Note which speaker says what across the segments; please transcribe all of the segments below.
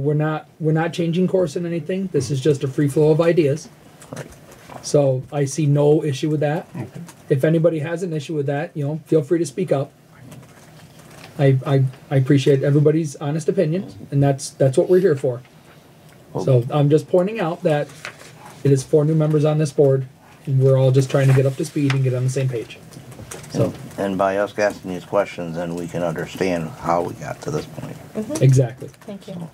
Speaker 1: We're not we're not changing course in anything. This is just a free flow of ideas.
Speaker 2: Right.
Speaker 1: So I see no issue with that. If anybody has an issue with that, you know, feel free to speak up. I I, I appreciate everybody's honest opinion, and that's that's what we're here for. So I'm just pointing out that it is four new members on this board, and we're all just trying to get up to speed and get on the same page. So
Speaker 2: And by us asking these questions, then we can understand how we got to this point.
Speaker 1: exactly.
Speaker 3: Thank you.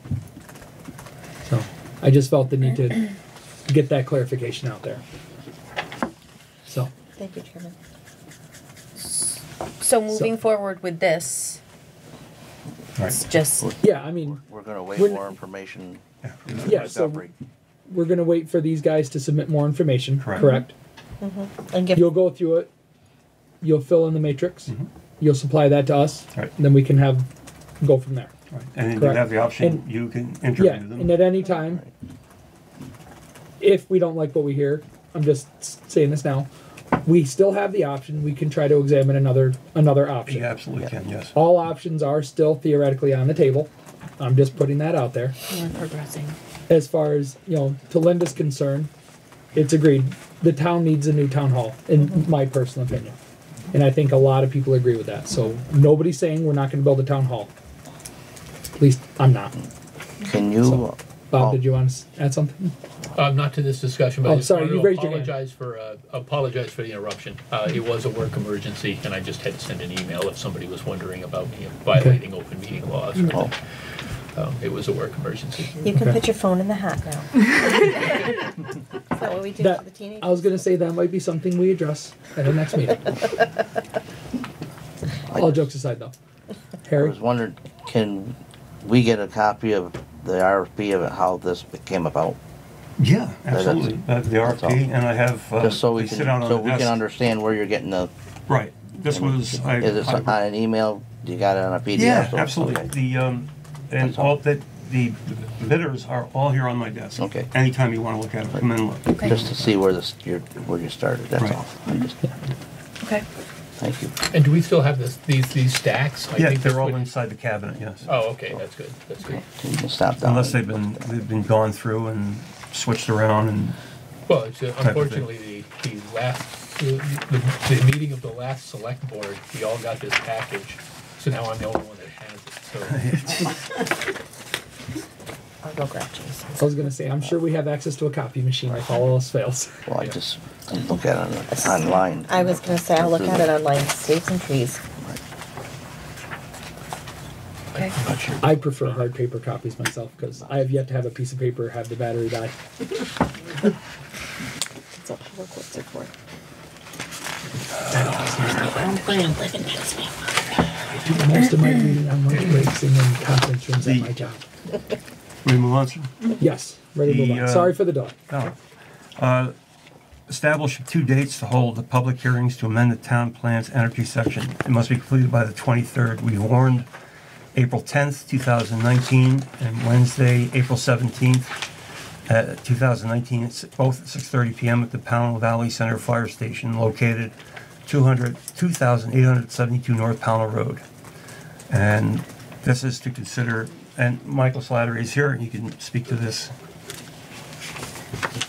Speaker 1: So I just felt the need to get that clarification out there. So
Speaker 3: Thank you, Chairman.
Speaker 4: So moving forward with this, it's just,
Speaker 1: yeah, I mean,
Speaker 2: We're gonna wait
Speaker 1: When-
Speaker 2: more information. from
Speaker 1: Yeah, so-
Speaker 2: Montgomery.
Speaker 1: we're gonna wait for these guys to submit more information.
Speaker 5: Correct.
Speaker 1: Correct.
Speaker 3: And give,
Speaker 1: You'll go through it. You'll fill in the matrix. You'll supply that to us.
Speaker 5: Mm-hmm. Right.
Speaker 1: And then we can have go from there.
Speaker 5: Right. And then you
Speaker 1: Correct.
Speaker 5: have the option,
Speaker 1: And-
Speaker 5: you can
Speaker 1: Yeah.
Speaker 5: interview
Speaker 1: And
Speaker 5: them.
Speaker 1: at any time, if we don't like what we hear, I'm just s- saying this now. We still have the option. We can try to examine another another option.
Speaker 5: You absolutely can, yes.
Speaker 1: All options are still theoretically on the table. I'm just putting that out there.
Speaker 4: we're progressing.
Speaker 1: As far as, you know, to Linda's concern, it's agreed. The town needs a new town hall, in my personal opinion. And I think a lot of people agree with that. So nobody's saying we're not gonna build a town hall. At least I'm not.
Speaker 2: Can you,
Speaker 1: Bob,
Speaker 2: Oh.
Speaker 1: did you want to add something?
Speaker 6: Um, not to this discussion, but
Speaker 1: Oh,
Speaker 6: I just
Speaker 1: sorry,
Speaker 6: wanted
Speaker 1: you
Speaker 6: to
Speaker 1: raised your hand.
Speaker 6: apologize for, uh, apologize for the interruption. Uh, it was a work emergency and I just had to send an email if somebody was wondering about me violating open meeting laws.
Speaker 1: Mm-hmm.
Speaker 2: oh,
Speaker 6: or- Um, it was a work emergency.
Speaker 3: you can
Speaker 1: Okay.
Speaker 3: put your phone in the hat now. Is that what we do
Speaker 1: That-
Speaker 3: for the teenagers?
Speaker 1: I was gonna say that might be something we address at our next meeting. All jokes aside though.
Speaker 2: I
Speaker 1: Harry?
Speaker 2: was wondering, can we get a copy of the RFP of how this came about?
Speaker 5: Yeah,
Speaker 2: that's-
Speaker 5: absolutely. I have the
Speaker 2: all.
Speaker 5: RFP and I have, uh,
Speaker 2: Just so we
Speaker 5: they
Speaker 2: can,
Speaker 5: sit out on
Speaker 2: so
Speaker 5: the
Speaker 2: we can
Speaker 5: desk.
Speaker 2: understand where you're getting the,
Speaker 5: Right. This was, I.
Speaker 2: is it
Speaker 5: I-
Speaker 2: on an email? You got it on a PDF?
Speaker 5: Yeah,
Speaker 2: So-
Speaker 5: absolutely.
Speaker 2: okay.
Speaker 5: The, um, and
Speaker 2: That's all.
Speaker 5: all, that, the bidders are all here on my desk.
Speaker 2: Okay.
Speaker 5: Anytime you wanna look at them, come in and look.
Speaker 2: Just to see where this, your, where you started, that's
Speaker 5: Right.
Speaker 2: all. I'm just,
Speaker 4: Okay.
Speaker 2: thank you.
Speaker 6: And do we still have this, these, these stacks? I
Speaker 5: Yeah,
Speaker 6: think
Speaker 5: they're
Speaker 6: this
Speaker 5: all
Speaker 6: would-
Speaker 5: inside the cabinet, yes.
Speaker 6: Oh, okay, that's good, that's good.
Speaker 2: You can stop down.
Speaker 5: Unless they've been, they've been gone through and switched around and,
Speaker 6: Well, it's, uh,
Speaker 5: thing.
Speaker 6: unfortunately, the, the last, the, the, the meeting of the last select board, we all got this package. So now I'm the only one that has it, so.
Speaker 3: I'll go grab Jason.
Speaker 1: I was gonna say, I'm sure we have access to a copy machine if all else fails.
Speaker 2: Well, I just didn't look at it on- online.
Speaker 3: I was gonna say, I'll look at it online, save some trees.
Speaker 4: Okay.
Speaker 6: I'm not sure.
Speaker 1: I prefer hard paper copies myself because I have yet to have a piece of paper have the battery die.
Speaker 3: That's what public works are for.
Speaker 1: I do most of my reading on lunch breaks and in conference rooms at
Speaker 5: The-
Speaker 1: my job.
Speaker 5: we move on, sir?
Speaker 1: Yes, ready to move
Speaker 5: The,
Speaker 1: on.
Speaker 5: uh,
Speaker 1: Sorry for the dog.
Speaker 5: No. Uh, Establish two dates to hold the public hearings to amend the town plan's energy section. It must be completed by the 23rd. We warned April 10th, 2019, and Wednesday, April 17th, uh, 2019, It's both at 6:30 PM at the Powell Valley Center Fire Station located 200 2,872 North Powell Road. And this is to consider, and Michael Slattery is here, and he can speak to this.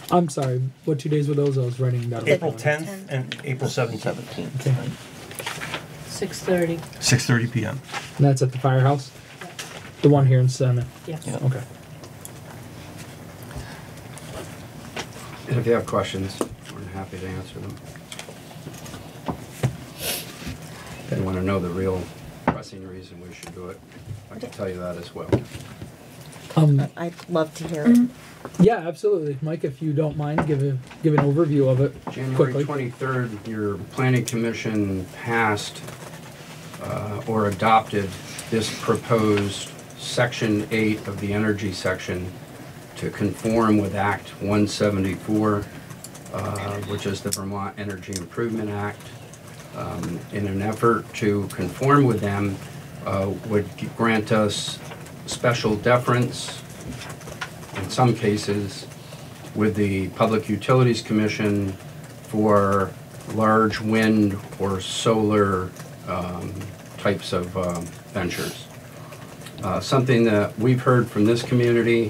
Speaker 1: I'm sorry. What two days were those? I was writing down.
Speaker 5: April 10th and April 17th,
Speaker 1: Okay.
Speaker 2: Seventeenth.
Speaker 1: And
Speaker 4: Six thirty.
Speaker 5: 6:30 PM.
Speaker 1: that's at the firehouse? The one here in Senate.
Speaker 4: Yes.
Speaker 2: Yeah.
Speaker 1: Okay.
Speaker 7: And if you have questions, we're happy to answer them. If you want to know the real pressing reason we should do it, I can tell you that as well.
Speaker 1: Um,
Speaker 3: I'd love to hear it.
Speaker 1: yeah, absolutely. Mike, if you don't mind, give a, give an overview of it
Speaker 7: January
Speaker 1: quickly.
Speaker 7: twenty-third, your planning commission passed uh, or adopted this proposed section eight of the energy section to conform with Act one seventy-four, uh, which is the Vermont Energy Improvement Act. Um, In an effort to conform with them, uh, would grant us special deference in some cases, with the Public Utilities Commission for large wind or solar um, types of um, ventures. uh, something that we've heard from this community